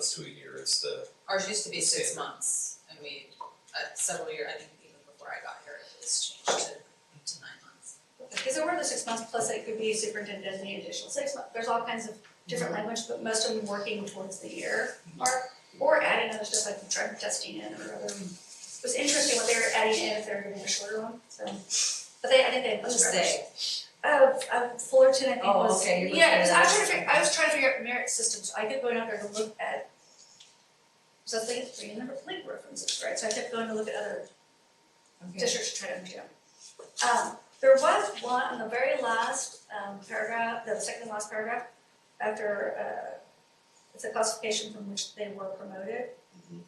months to a year, it's the, Ours used to be six Standard. months, and we, uh, several year, I think even before I got here, it was changed to, to nine months. Because there were the six months, plus it could be superintendent designated additional six months, there's all kinds of different Mm-hmm. language, but most of them working towards the year mark. Or adding other stuff like drug testing in or other, it was interesting what they were adding in if they were giving a shorter one, so. But they, I think they had. What is much they? Uh, uh, Fullerton, I think Oh, was, okay, you're yeah, because I was looking at trying to, fig- I was trying to figure out merit systems, I kept going out there to look at. So I was like, three number link references, right, so I kept going to look at other districts to try to understand. Um, there was one, on the very last, um, paragraph, the second last paragraph, after, uh, it's a classification from which they were promoted. Mm-hmm.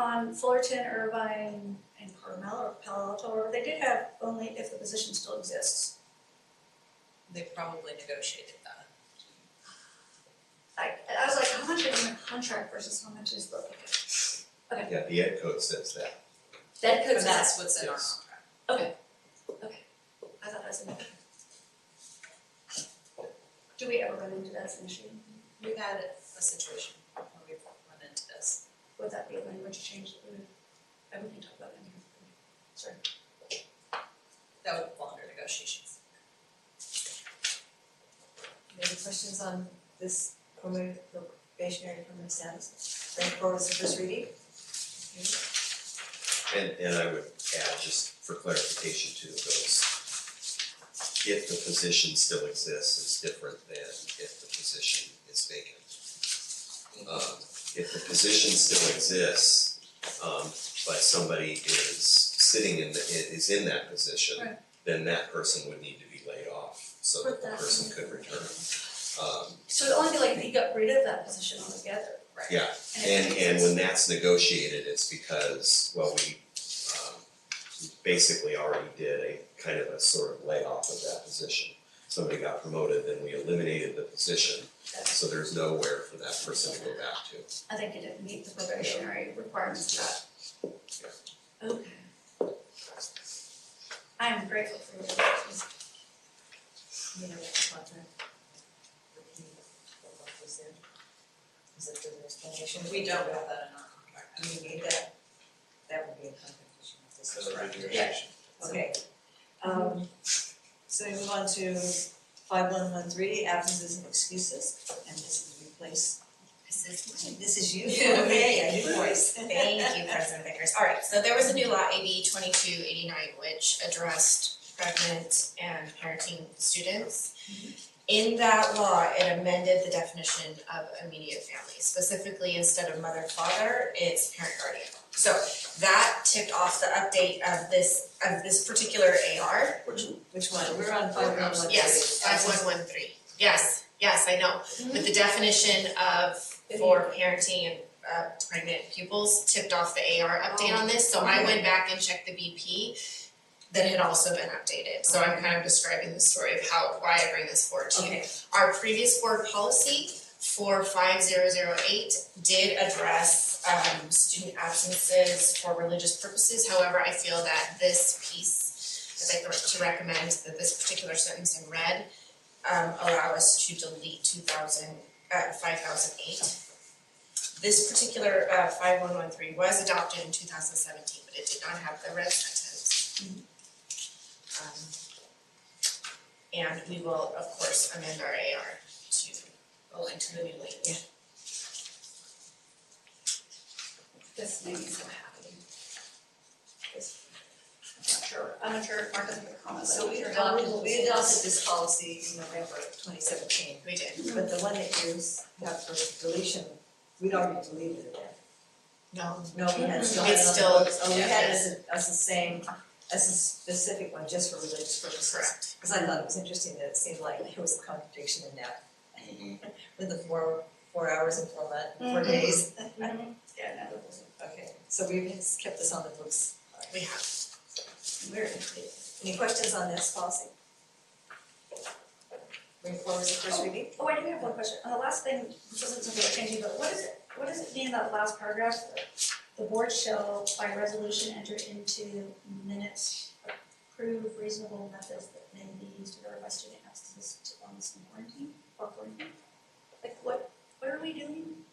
On Fullerton, Irvine, and Carmel, or Palo Alto, or they did have only if the position still exists. They probably negotiated that. I, I was like, how much is in the contract versus how much is the, yeah, the ed code says that. that could But that's what's in our Yes. contract. I thought that was an. Do we ever run into that as an issue? We've had a situation where we've run into this. Would that be a language change that we would, that we can talk about in here? Sorry. That would fall under negotiations. Any questions on this promo- probationary permanent status? Bring forward as a first reading? And, and I would add, just for clarification to those, if the position still exists, it's different than if the position is vacant. Um, if the position still exists, um, but somebody is sitting in the, i- is in that position, Right. then that person would need to be laid off, so that the Put that person in. could return. Um, So it'd only be like if you got rid of that position altogether, right? Yeah, And it And and exists. when that's negotiated, it's because, well, we um we basically already did a kind of a sort of layoff of that position. Somebody got promoted, then we eliminated the position, so there's nowhere for that person to go back to. I think it didn't meet the probationary requirements of that. Okay. I am grateful for your questions. You know, which contract? Was there? Is it further explanation? We don't have that in our contract. Do you need that? That would be a contract issue if this is correct. Okay. Um, so we move on to five one one three, absences and excuses, and this is replace. This is, this is you. Yeah. Okay, a new voice. Thank you, President Vickers. All right, so there was a new law, AB twenty-two eighty-nine, which addressed pregnant and parenting students. In that law, it amended the definition of immediate family, specifically instead of mother, father, it's parent guardian. So that tipped off the update of this, of this particular AR. Which one? We're on five one one three. Yes, five one one three. Yes, yes, I know. But the definition of for parenting and uh pregnant pupils tipped off the AR update on this, so I went back and checked the BP that had also been updated, so I'm kind of describing the story of how, why I bring this forward to you. Okay, Our previous board policy for five zero zero eight did address um student absences for religious purposes, however, I feel that this piece I'd like to recommend that this particular sentence in red um allow us to delete two thousand uh five thousand eight. This particular uh five one one three was adopted in two thousand seventeen, but it did not have the red sentence. Um and we will, of course, amend our AR to align to the new language. This made me so happy. This, I'm not sure, I'm not sure if Mark has a comment, so we are adopted, we adopted this policy in November twenty seventeen, We did. but the one that you have for deletion, we'd already deleted it. No. No, we had still had It's it on still- the books, oh, we had it yeah. as a, as the same, as a specific one, just for religious purposes. Correct. Cause I thought it was interesting that it seemed like there was a contradiction in that, with the four, four hours and four month, four Mhm. Mm-hmm. days. Yeah, no, Okay, so we've kept this on the books, We have. we're, any questions on this policy? Bring forward the first reading? Oh, I do have one question, on the last thing, this isn't something we're changing, but what is it, what does it mean in that last paragraph? The board shall by resolution enter into minutes, approve reasonable methods that may be used to verify student absences to wellness and quarantine, or quarantine? Like, what, what are we doing?